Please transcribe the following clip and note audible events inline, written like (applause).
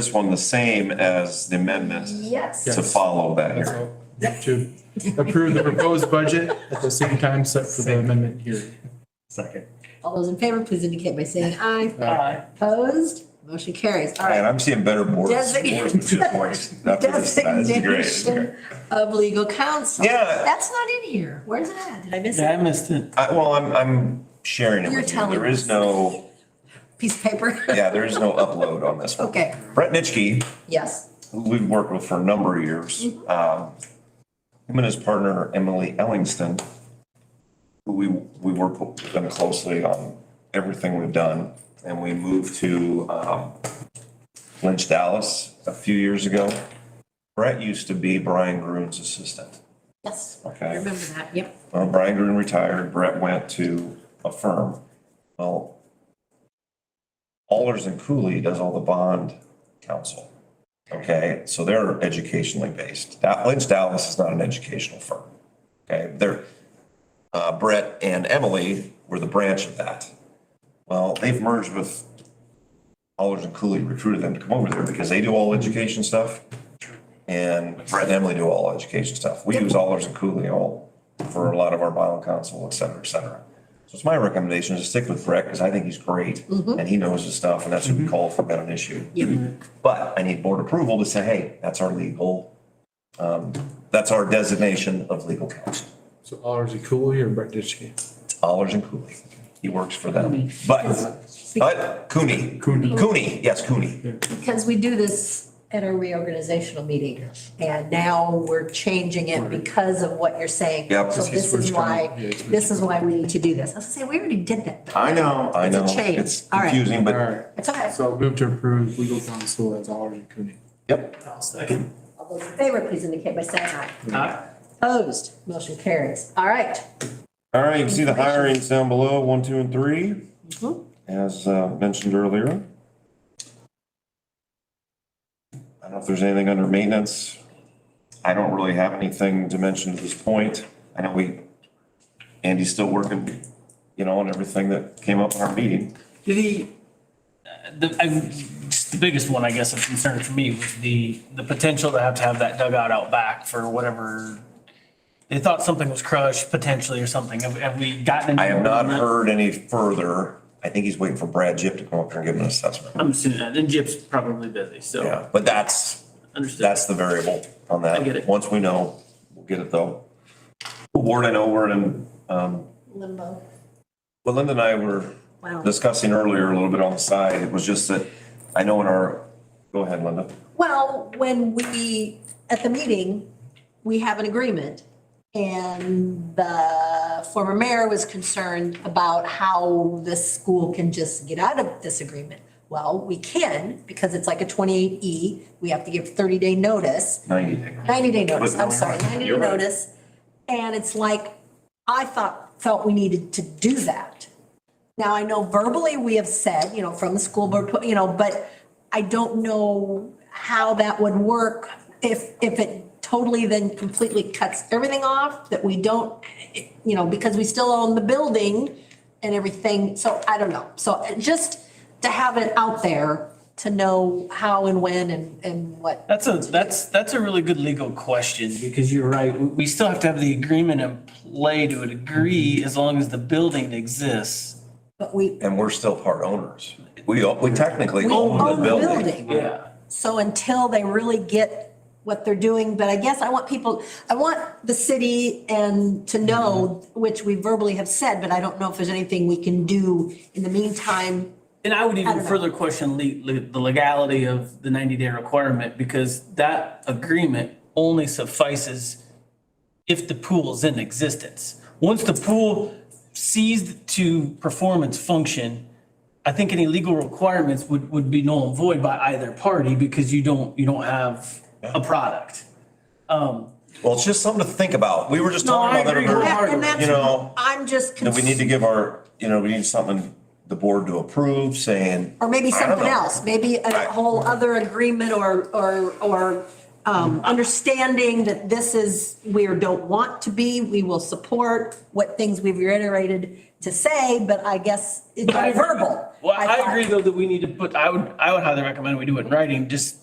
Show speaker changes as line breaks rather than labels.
this one the same as the amendment
Yes.
to follow that
That's
here.
all. To approve the proposed budget at the same time set for the amendment hearing.
Second.
All those in favor, please indicate by saying aye.
Aye.
Opposed? Motion carries. All
Man,
right.
I'm seeing better boards.
Designate-
boards with two points. After this, that is great.
Designation of legal counsel.
Yeah.
That's not in here. Where's it at? Did I miss
Yeah,
it?
I missed it.
I, well, I'm, I'm sharing it
You're
with you.
telling
There
us.
is no,
Piece of paper?
yeah, there is no upload on this one.
(laughs) Okay,
Brett Nitschke,
yes.
who we've worked with for a number of years, um, him and his partner Emily Ellingston, who we, we work with them closely on everything we've done. And we moved to um, Lynch, Dallas a few years ago. Brett used to be Brian Groon's assistant,
Yes. I
okay?
remember that. Yep.
Well, Brian Green retired, Brett went to a firm. Well, Allers and Cooley does all the bond counsel. Okay, so they're educationally based. That- Lynch Dallas is not an educational firm. Okay, they're, uh, Brett and Emily were the branch of that. Well, they've merged with Allers and Cooley, recruited them to come over there because they do all education stuff. And Brett and Emily do all education stuff. We use Allers and Cooley all for a lot of our bond counsel, et cetera, et cetera. So it's my recommendation to stick with Brett because I think he's great
Mm-hmm.
and he knows his stuff and that's who we call if we've got an issue.
Yep.
But I need board approval to say, hey, that's our legal, um, that's our designation of legal counsel.
So Allers and Cooley or Brett Ditchke?
It's Allers and Cooley. He works for them. But, but Cooney.
Cooney.
Cooney, yes, Cooney.
Because we do this at our reorganizational meeting. And now we're changing it because of what you're saying.
Yep.
So this is why, this is why we need to do this. I was gonna say, we already did that.
I know. I
It's a
know.
change.
It's
All right.
confusing,
All
but,
right,
It's okay.
so move to approve legal counsel as Allers and Cooney.
yep.
All those in favor, please indicate by saying aye.
Uh,
Opposed? Motion carries. All right.
All right, you can see the hirings down below, one, two, and three,
Mhm.
as uh, mentioned earlier. I don't know if there's anything under maintenance. I don't really have anything to mention at this point. I know we, Andy's still working, you know, on everything that came up in our meeting.
The, uh, the, I, just the biggest one, I guess, of concern for me was the, the potential to have to have that dugout out back for whatever. They thought something was crushed potentially or something. Have, have we gotten?
I have not heard any further. I think he's waiting for Brad Jip to come up here and give him an assessment.
I'm assuming that, and Jip's probably busy, so
Yeah, but that's,
understood.
that's the variable on that.
I get it.
Once we know, we'll get it though. Ward, I know we're in, um,
Limbo.
well, Linda and I were
Wow.
discussing earlier a little bit on the side. It was just that I know in our, go ahead, Linda.
Well, when we, at the meeting, we have an agreement. And the former mayor was concerned about how the school can just get out of this agreement. Well, we can, because it's like a twenty-eight E, we have to give thirty-day notice,
Ninety day.
ninety-day notice,
But-
I'm sorry, ninety-day
You're right.
notice. And it's like, I thought, felt we needed to do that. Now, I know verbally we have said, you know, from the school board, you know, but I don't know how that would work if, if it totally then completely cuts everything off, that we don't, you know, because we still own the building and everything, so I don't know. So uh, just to have it out there, to know how and when and, and what.
That's a, that's, that's a really good legal question because you're right. We, we still have to have the agreement in play to a degree as long as the building exists.
But we
And we're still part owners. We, o- we technically
we
own the building.
Yeah.
So until they really get what they're doing, but I guess I want people, I want the city and to know,
Mm-hmm.
which we verbally have said, but I don't know if there's anything we can do in the meantime.
And I would
don't
even
know.
further question le- le- the legality of the ninety day requirement because that agreement only suffices if the pool is in existence. Once the pool ceased to perform its function, I think any legal requirements would, would be null and void by either party because you don't, you don't have a product. Um,
Well, it's just something to think about. We were just
No,
talking
I
about that.
agree with
earlier.
that.
And that's-
You know,
I'm just.
that we need to
cons-
give our, you know, we need something the board to approve saying.
Or maybe
I don't
something
know.
else, maybe a
I-
whole other agreement or, or, or um, um, understanding that this is where don't want to be, we will support what things we've reiterated to say, but I guess it's all verbal.
Well, I
thought.
agree though that we need to put, I would, I would highly recommend we do it in writing, just